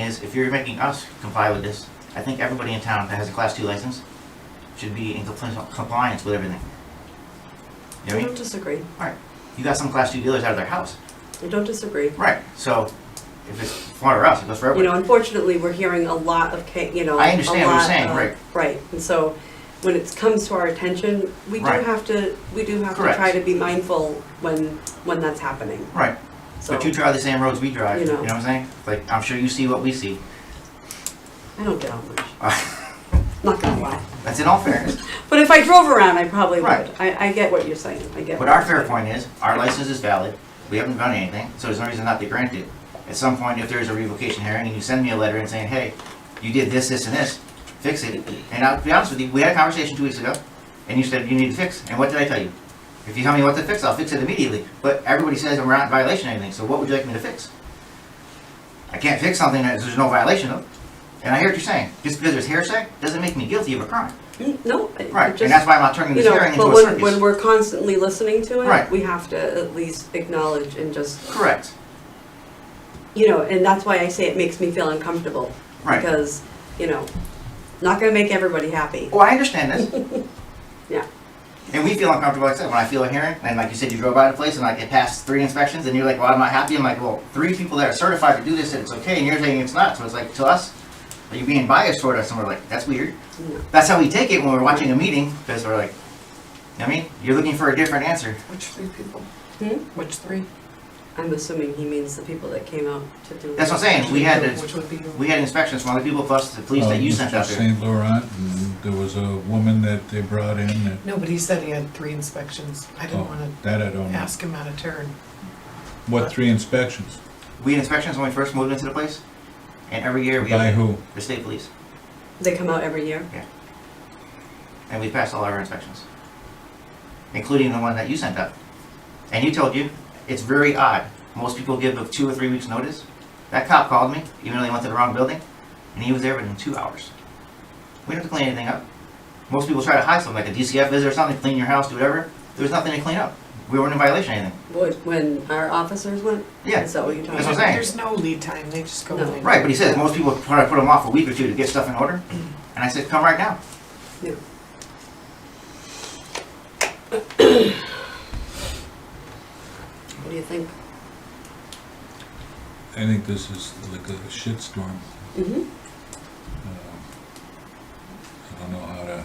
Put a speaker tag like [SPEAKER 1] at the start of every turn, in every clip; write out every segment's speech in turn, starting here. [SPEAKER 1] is, if you're making us comply with this, I think everybody in town that has a class two license should be in compli- compliance with everything. You know what
[SPEAKER 2] I
[SPEAKER 1] I
[SPEAKER 2] don't
[SPEAKER 1] mean?
[SPEAKER 2] disagree.
[SPEAKER 1] Alright,
[SPEAKER 2] Mm-hmm.
[SPEAKER 1] you got some class two dealers out of their house,
[SPEAKER 2] I don't disagree.
[SPEAKER 1] right, so if it's for us, it goes for
[SPEAKER 2] You know,
[SPEAKER 1] everybody.
[SPEAKER 2] unfortunately, we're hearing a lot of, ca- you know.
[SPEAKER 1] I understand
[SPEAKER 2] a
[SPEAKER 1] what you're
[SPEAKER 2] lot
[SPEAKER 1] saying,
[SPEAKER 2] of-
[SPEAKER 1] right.
[SPEAKER 2] Right, and so when it comes to our attention, we do
[SPEAKER 1] Right.
[SPEAKER 2] have to, we do have to
[SPEAKER 1] Correct.
[SPEAKER 2] try to be mindful when, when that's happening,
[SPEAKER 1] Right,
[SPEAKER 2] so.
[SPEAKER 1] but you drive the same roads we drive,
[SPEAKER 2] You
[SPEAKER 1] you
[SPEAKER 2] know.
[SPEAKER 1] know what I'm saying? Like, I'm sure you see what we see.
[SPEAKER 2] I don't get out much, not gonna lie.
[SPEAKER 1] That's in all fairness,
[SPEAKER 2] But if I drove around, I probably would.
[SPEAKER 1] Right.
[SPEAKER 2] I, I get what you're saying, I get.
[SPEAKER 1] but
[SPEAKER 2] what
[SPEAKER 1] our
[SPEAKER 2] you're
[SPEAKER 1] fair
[SPEAKER 2] saying.
[SPEAKER 1] point is, our license is valid, we haven't done anything, so there's no reason not to grant it. At some point, if there's a revocation hearing and you send me a letter and saying, hey, you did this, this, and this, fix it. And I'll be honest with you, we had a conversation two weeks ago, and you said you need to fix, and what did I tell you? If you tell me what to fix, I'll fix it immediately, but everybody says I'm not in violation of anything, so what would you like me to fix? I can't fix something that there's no violation of, and I hear what you're saying, just because there's hearsay, doesn't make me guilty of a crime.
[SPEAKER 2] Mm, No. it- it
[SPEAKER 1] Right,
[SPEAKER 2] just-
[SPEAKER 1] and that's why I'm not turning
[SPEAKER 2] You
[SPEAKER 1] this
[SPEAKER 2] know,
[SPEAKER 1] hearing into
[SPEAKER 2] but
[SPEAKER 1] a
[SPEAKER 2] when, when
[SPEAKER 1] circus.
[SPEAKER 2] we're constantly listening to it,
[SPEAKER 1] Right.
[SPEAKER 2] we have to at least acknowledge and just,
[SPEAKER 1] Correct,
[SPEAKER 2] you know, and that's why I say it makes me feel uncomfortable.
[SPEAKER 1] right.
[SPEAKER 2] Because, you know, not gonna make everybody happy.
[SPEAKER 1] Well, I understand this,
[SPEAKER 2] Yeah,
[SPEAKER 1] and we feel uncomfortable, like I said, when I feel a hearing, and like you said, you drove by the place and like it passed three inspections, and you're like, well, I'm not happy, I'm like, well, three people that are certified to do this, and it's okay, and you're saying it's not, so it's like, to us, are you being biased toward us, and we're like, that's weird.
[SPEAKER 2] no.
[SPEAKER 1] That's how we take it when we're watching a meeting, because we're like, I mean, you're looking for a different answer.
[SPEAKER 3] Which three people?
[SPEAKER 2] Hmm?
[SPEAKER 3] Which three?
[SPEAKER 2] I'm assuming he means the people that came out to do.
[SPEAKER 1] That's what I'm saying, we had,
[SPEAKER 3] Which
[SPEAKER 1] to-
[SPEAKER 3] would be you?
[SPEAKER 1] we had inspections from other people, plus the police that Oh, you
[SPEAKER 4] Uh,
[SPEAKER 1] sent
[SPEAKER 4] Mr.
[SPEAKER 1] out there.
[SPEAKER 4] St. Laurent, and there was a woman that they brought in that,
[SPEAKER 3] No, but he said he had three inspections. I didn't
[SPEAKER 4] oh,
[SPEAKER 3] wanna
[SPEAKER 4] that I don't know.
[SPEAKER 3] ask him out of turn.
[SPEAKER 4] What three inspections?
[SPEAKER 1] We had inspections when we first moved into the place, and every year we
[SPEAKER 4] By
[SPEAKER 1] have
[SPEAKER 4] who?
[SPEAKER 1] the state police,
[SPEAKER 2] They come out every year?
[SPEAKER 1] and we passed all our inspections, including the one that you sent out. And you told you, it's very odd. Most people give a two or three weeks' notice. That cop called me, even though they went to the wrong building, and he was there within two hours. We didn't have to clean anything up. Most people try to hide something, like a DCF visit or something, clean your house, do whatever. There was nothing to clean up. We weren't in violation of anything.
[SPEAKER 2] Would, when our officers went?
[SPEAKER 1] Yeah,
[SPEAKER 2] Is that what you're talking
[SPEAKER 1] That's
[SPEAKER 2] about?
[SPEAKER 1] what I'm saying.
[SPEAKER 3] There's no lead time, they just go
[SPEAKER 2] No.
[SPEAKER 3] in.
[SPEAKER 1] Right, but he says most people try to put them off a week or two to get stuff in order. And I said, come right now.
[SPEAKER 2] Yeah. What do you think?
[SPEAKER 4] I think this is like a shitstorm.
[SPEAKER 2] Mm-hmm.
[SPEAKER 4] Uh, I don't know how to,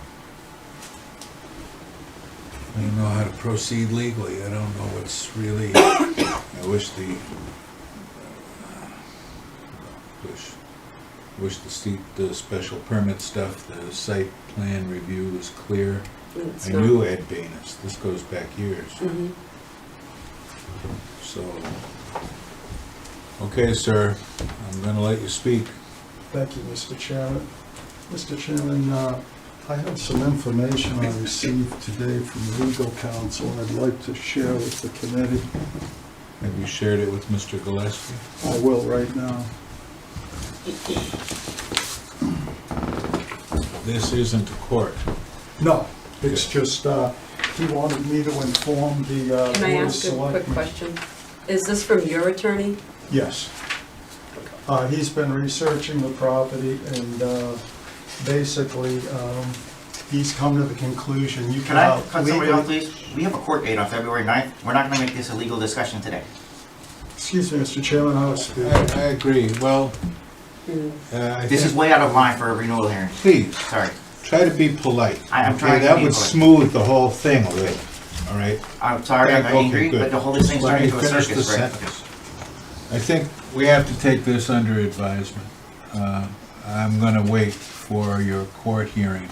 [SPEAKER 4] I don't know how to proceed legally. I don't know what's really, I wish the, uh, wish, wish the steep, the special permit stuff, the site plan review was clear. I knew Ed Banus, this goes back years,
[SPEAKER 2] Mm-hmm.
[SPEAKER 4] so. Okay, sir, I'm gonna let you speak.
[SPEAKER 5] Thank you, Mr. Chairman. Mr. Chairman, uh, I have some information I received today from legal counsel I'd like to share with the committee.
[SPEAKER 4] Have you shared it with Mr. Gillespie?
[SPEAKER 5] I will right now.
[SPEAKER 4] This isn't a court.
[SPEAKER 5] No, it's just, uh, he wanted me to inform the uh,
[SPEAKER 2] Can I
[SPEAKER 5] Board of
[SPEAKER 2] ask a quick
[SPEAKER 5] Selectmen.
[SPEAKER 2] question? Is this from your attorney?
[SPEAKER 5] Yes. Uh, He's been researching the property and uh, basically, um, he's come to the conclusion you
[SPEAKER 1] Can I
[SPEAKER 5] cannot
[SPEAKER 1] cut somebody off,
[SPEAKER 5] legally...
[SPEAKER 1] please? We have a court date on February 9th. We're not gonna make this a legal discussion today.
[SPEAKER 5] Excuse me, Mr. Chairman, I was
[SPEAKER 4] I,
[SPEAKER 5] speaking.
[SPEAKER 4] I agree, well,
[SPEAKER 2] Hmm.
[SPEAKER 4] uh, I
[SPEAKER 1] This is
[SPEAKER 4] think,
[SPEAKER 1] way out of line for a renewal hearing.
[SPEAKER 4] please,
[SPEAKER 1] Sorry.
[SPEAKER 4] try to be polite.
[SPEAKER 1] I am
[SPEAKER 4] okay?
[SPEAKER 1] trying to
[SPEAKER 4] That
[SPEAKER 1] be
[SPEAKER 4] would
[SPEAKER 1] polite.
[SPEAKER 4] smooth the whole thing a little, all right?
[SPEAKER 1] I'm sorry, I'm
[SPEAKER 4] Okay,
[SPEAKER 1] angry,
[SPEAKER 4] good.
[SPEAKER 1] but the whole thing's
[SPEAKER 4] Let
[SPEAKER 1] turning
[SPEAKER 4] me
[SPEAKER 1] into a
[SPEAKER 4] finish the
[SPEAKER 1] circus, right?
[SPEAKER 4] sentence. I think we have to take this under advisement. Uh, I'm gonna wait for your court hearing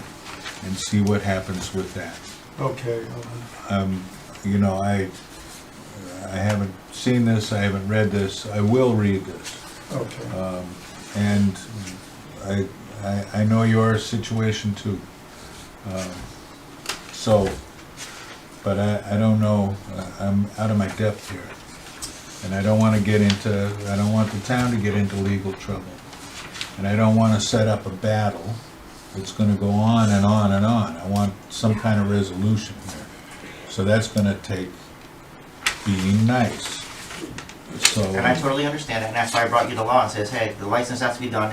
[SPEAKER 4] and see what happens with that.
[SPEAKER 5] Okay. uh,
[SPEAKER 4] Um, You know, I, I haven't seen this, I haven't read this, I will read this.
[SPEAKER 5] uh, Okay,
[SPEAKER 4] Um, And I, I, I know your situation too. Um, So, but I, I don't know, I- I'm out of my depth here. And I don't wanna get into, I don't want the town to get into legal trouble. And I don't wanna set up a battle that's gonna go on and on and on. I want some kind of resolution here. So that's gonna take being nice. so.
[SPEAKER 1] And I totally understand that, and that's why I brought you the law and says, hey, the license has to be done